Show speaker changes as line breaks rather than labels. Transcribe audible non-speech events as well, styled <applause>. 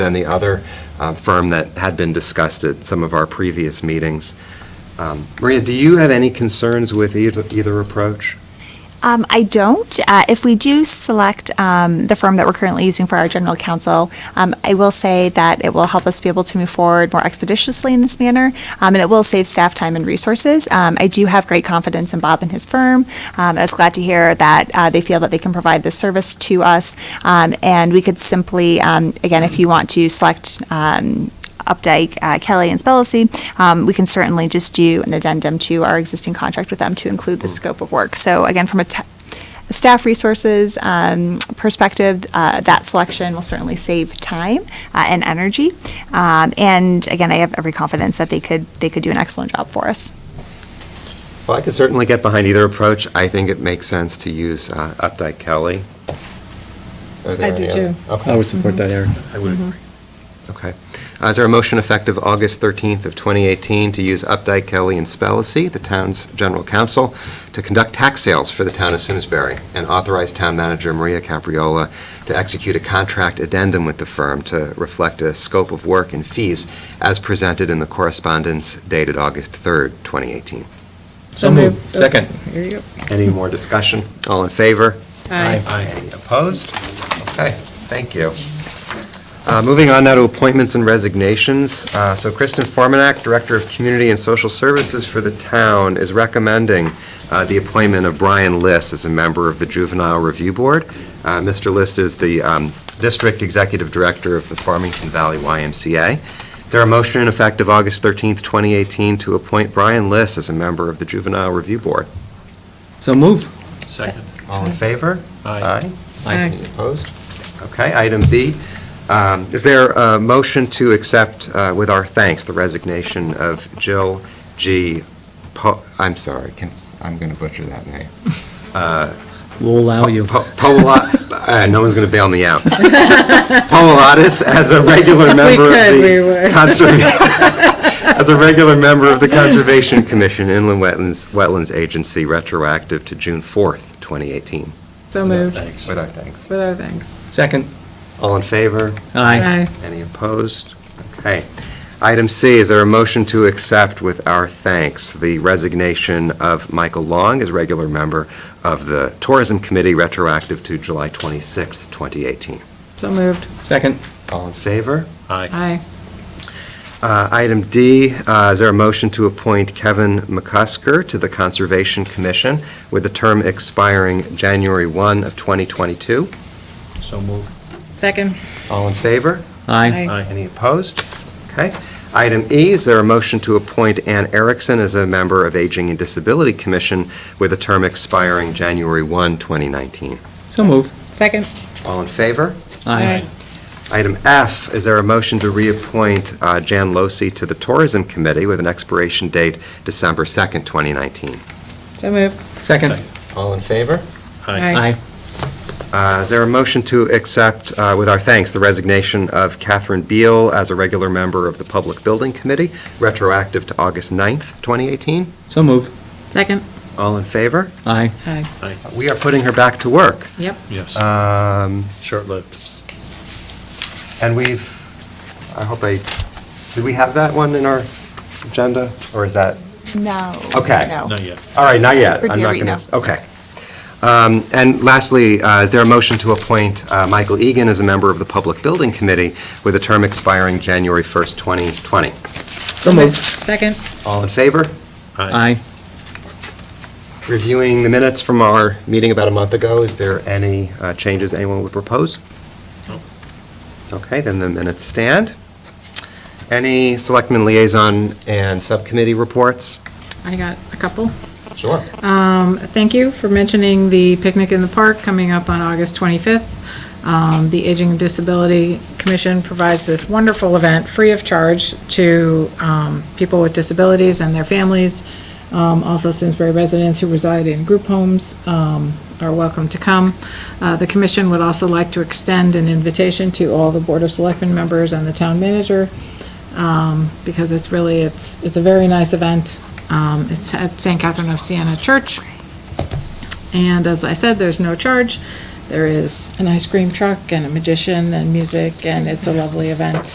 than the other uh, firm that had been discussed at some of our previous meetings. Um, Maria, do you have any concerns with either either approach?
Um, I don't. Uh, if we do select um, the firm that we're currently using for our general counsel, um, I will say that it will help us be able to move forward more expeditiously in this manner, um, and it will save staff time and resources. Um, I do have great confidence in Bob and his firm. Um, I was glad to hear that uh, they feel that they can provide this service to us, um, and we could simply, um, again, if you want to select. Um, Updike, uh, Kelly, and Spellacy, um, we can certainly just do an addendum to our existing contract with them to include the scope of work. So again, from a t- a staff resources um, perspective, uh, that selection will certainly save time uh, and energy. Um, and again, I have every confidence that they could they could do an excellent job for us.
Well, I could certainly get behind either approach. I think it makes sense to use uh, Updike Kelly. Are there
I do
any other-
too.
Okay.
I would support that, Eric.
I would agree.
Okay. Uh, Is there a motion effective August 13th of 2018 to use Updike, Kelly, and Spellacy, the town's general counsel, to conduct tax sales for the town of Simsbury, and authorize town manager Maria Capriola to execute a contract addendum with the firm to reflect a scope of work and fees as presented in the correspondence dated August 3rd, 2018?
So moved.
Second.
Here you go.
Any more discussion? All in favor?
Aye.
Aye.
Opposed? Okay, thank you. Uh, Moving on now to appointments and resignations. Uh, So Kristen Formanak, Director of Community and Social Services for the town, is recommending uh, the appointment of Brian List as a member of the Juvenile Review Board. Uh, Mr. List is the um, District Executive Director of the Farmington Valley YMCA. Is there a motion in effect of August 13th, 2018, to appoint Brian List as a member of the Juvenile Review Board?
So move.
Second.
All in favor?
Aye.
Aye.
Any opposed? Okay, item B. Um, Is there a motion to accept uh, with our thanks the resignation of Jill G. Po, I'm sorry, can- I'm going to butcher that name. Uh,
We'll allow you.
Po- Pola, uh, no one's going to bail me
<laughs>
out. Polatis as a regular member of
could, we
the
would.
Conserva-
<laughs>
as a regular member of the Conservation Commission Inland Wetlands, Wetlands Agency, retroactive to June 4th, 2018.
So moved.
With our thanks.
With our thanks.
Second.
All in favor?
Aye.
Any opposed? Okay. Item C, is there a motion to accept with our thanks the resignation of Michael Long as regular member of the Tourism Committee retroactive to July 26th, 2018?
So moved.
Second.
All in favor?
Aye.
Aye.
Uh, Item D, uh, is there a motion to appoint Kevin McCusker to the Conservation Commission with a term expiring January 1 of 2022?
So moved.
Second.
All in favor?
Aye.
Aye.
Any opposed? Okay. Item E, is there a motion to appoint Ann Erickson as a member of Aging and Disability Commission with a term expiring January 1, 2019?
So move.
Second.
All in favor?
Aye.
Item F, is there a motion to reappoint uh, Jan Losi to the Tourism Committee with an expiration date December 2nd, 2019?
So moved.
Second.
All in favor?
Aye.
Uh, Is there a motion to accept, uh, with our thanks, the resignation of Catherine Beal as a regular member of the Public Building Committee, retroactive to August 9th, 2018?
So move.
Second.
All in favor?
Aye.
Aye.
We are putting her back to work.
Yep.
Yes,
Um,
short-lived.
And we've, I hope I, did we have that one in our agenda? Or is that,
No.
Okay.
No.
Not yet.
all right, not yet.
For
I'm not
Deary,
gonna- Okay. Um, And lastly, uh, is there a motion to appoint uh, Michael Egan as a member of the Public Building Committee with a term expiring January 1st, 2020?
So move.
Second.
All in favor?
Aye.
Reviewing the minutes from our meeting about a month ago, is there any uh, changes anyone would propose?
No.
Okay, then the minutes stand. Any selectmen liaison and subcommittee reports?
I got a couple.
Sure.
Um, Thank you for mentioning the picnic in the park coming up on August 25th. Um, The Aging and Disability Commission provides this wonderful event, free of charge, to um, people with disabilities and their families. Um, Also, Simsbury residents who reside in group homes um, are welcome to come. Uh, The commission would also like to extend an invitation to all the Board of Selectmen members and the town manager um, because it's really, it's, it's a very nice event. Um, It's at St. Catherine of Siena Church. And as I said, there's no charge. There is an ice cream truck and a magician and music, and it's a lovely event.